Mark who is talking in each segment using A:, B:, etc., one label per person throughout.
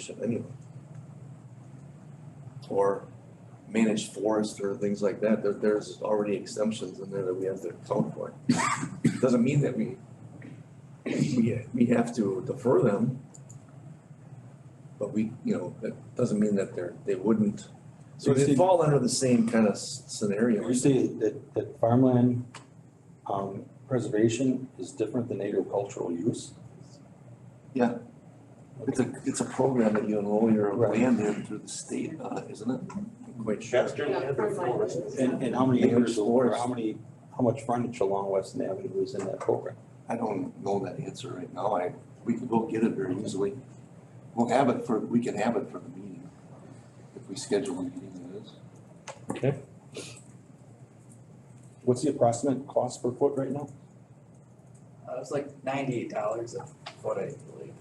A: should anyway. Or managed forest or things like that, there, there's already exemptions in there that we have to account for. Doesn't mean that we, we, we have to defer them. But we, you know, that doesn't mean that they're, they wouldn't, so
B: So you
A: they
B: see-
A: fall under the same kind of s- scenario.
B: You say that, that farmland, um, preservation is different than agricultural use?
A: Yeah. It's a, it's a program that you enroll your
B: Right.
A: land in through the state, uh, isn't it? I'm Quite sure.
C: Chester land or forest?
B: And, and how many
A: Acres
B: acres, or
A: forest.
B: how many, how much frontage along Weston Avenue is in that program?
A: I don't know that answer right now. I, we could go get it very easily. We'll have it for, we can have it for the meeting, if we schedule a meeting that is.
B: What's the approximate cost per foot right now?
D: Uh, it was like ninety-eight dollars a foot, I believe.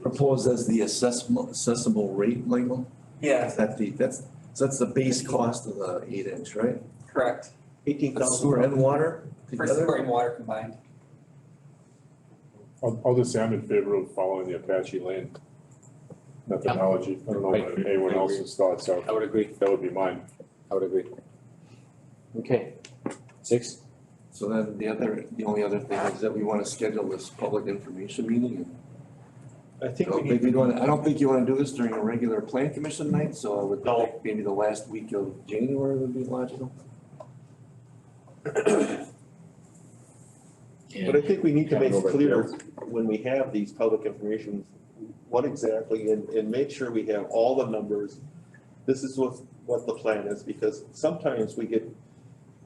A: Proposed as the assessable, assessable rate, Michael?
D: Yeah,
A: Is that the, that's, so that's the base cost of the eight inch, right?
D: correct,
E: Eighteen
A: That's Sewer and water
D: for
A: together?
D: sewer and water combined.
F: I'll, I'll just say I'm in favor of following the Apache land methodology. I don't know
G: I-
F: what anyone
G: I agree.
F: else's thoughts are.
G: I would agree,
F: That would be mine.
G: I would agree. Okay, six,
A: So then the other, the only other thing is that we wanna schedule this public information meeting and
E: I
A: I
E: think we
A: don't
E: need,
A: think we'd wanna, I don't think you wanna do this during a regular plan commission night, so I would think maybe the last week of January would be logical.
E: but I think we need to make
F: Capital
E: clear when we have these public information, what exactly, and, and make sure we have all the numbers. This is what, what the plan is, because sometimes we get,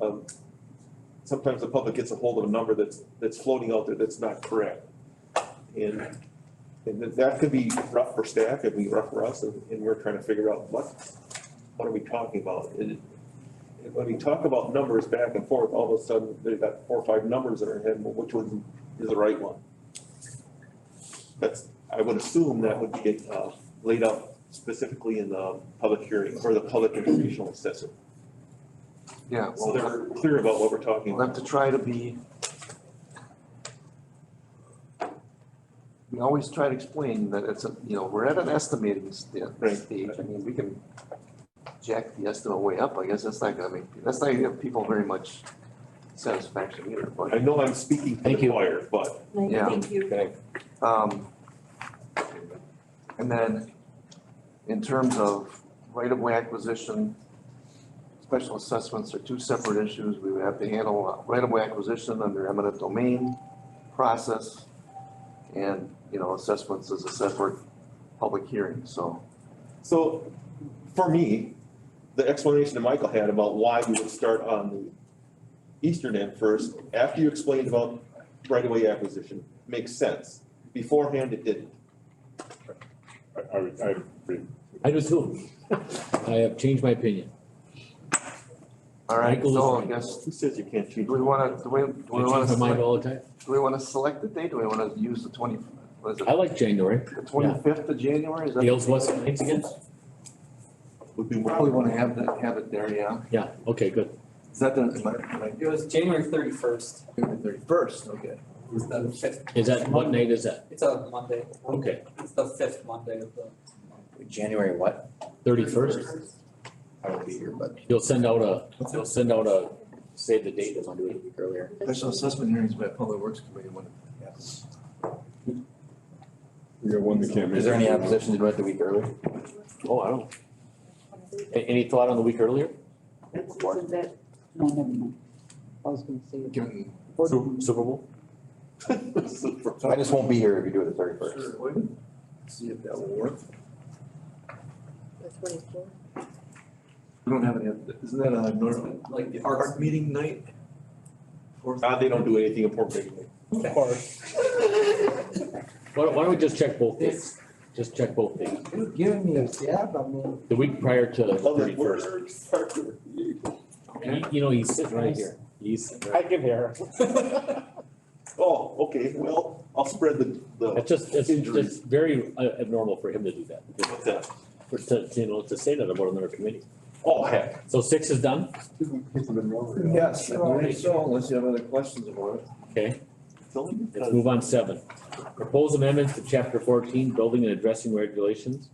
E: um, sometimes the public gets a hold of a number that's, that's floating out there that's not correct. And, and that- that could be rough for staff, it'd be rough for us, and, and we're trying to figure out what, what are we talking about? And And when we talk about numbers back and forth, all of a sudden, they've got four or five numbers in our head, well, which one is the right one? That's, I would assume that would get uh, laid out specifically in the public hearing or the public informational assessment.
A: Yeah.
E: So they're clear about what we're talking
A: We'll have
E: about.
A: to try to be. We always try to explain that it's a, you know, we're at an estimating sta-
E: Right.
A: stage, I mean, we can jack the estimate way up, I guess that's not gonna make, that's not gonna give people very much satisfaction either,
E: I
A: but,
E: know I'm speaking to
G: Thank
E: the
G: you.
E: choir, but
H: Mike,
A: Yeah.
H: thank you.
A: um. And then, in terms of right-of-way acquisition, special assessments are two separate issues, we would have to handle uh, right-of-way acquisition under eminent domain process, and, you know, assessments is a separate public hearing, so.
E: so for me, the explanation that Michael had about why we would start on the eastern end first, after you explained about right-of-way acquisition, makes sense. Beforehand, it didn't.
F: I, I, would- I agree.
G: I do too. I have changed my opinion.
A: All right,
G: Michael is
A: so I
G: right.
A: guess,
E: Who says you can't
A: do
E: change?
A: we wanna, do we, do
G: I
A: we wanna
G: change my
A: select,
G: mind all the time.
A: do we wanna select the date, do we wanna use the twenty, what is
G: I
A: it,
G: like January.
A: the twenty-fifth of January, is that?
G: Dale's Weston Heights again?
E: Would be
A: Probably wanna have that, have it there, yeah,
G: Yeah, okay, good.
A: is that the, am I- am I
D: It was January thirty-first,
A: February thirty-first, okay.
D: it's the fifth,
G: Is that, what night is that?
D: it's a Monday,
G: Okay,
D: it's the fifth Monday of the.
I: January what?
G: thirty-first.
I: I will be here, but
G: You'll send out a, you'll send out a, save the date, if I do it a week earlier.
A: Special assessment hearings by Public Works Committee when it happens.
F: We got one that can't make.
I: is there any
F: it.
I: opposition to do it the week earlier?
G: Oh, I don't. A- Any thought on the week earlier?
H: Isn't that-
J: No, never mind. I was gonna say.
A: Given.
G: Su- Super Bowl?
I: So I just won't be here if you do it the thirty first.
A: See if that will work.
H: the 24th?
A: We don't have any, isn't that a normal, like the art meeting night? Or-
E: Uh, they don't do anything important anyway.
G: Why don't, why don't we just check both dates? Just check both dates.
J: You're giving me a stab, I mean.
G: The week prior to the
E: Other
G: thirty-first.
E: words are-
G: You know, he's sitting right here. He's sitting right.
B: can hear.
E: Oh, okay, well, I'll spread the, the,
G: It's just, it's
E: Injuries.
G: just very uh, abnormal for him to do that.
E: the,
G: For, to, you know, to say that about another committee.
E: oh heck,
G: So six is done,
A: Yes, I believe so, unless you have other questions about it.
G: okay?
E: filling.
G: Let's move on seven. Proposed amendments to chapter fourteen, building and addressing regulations.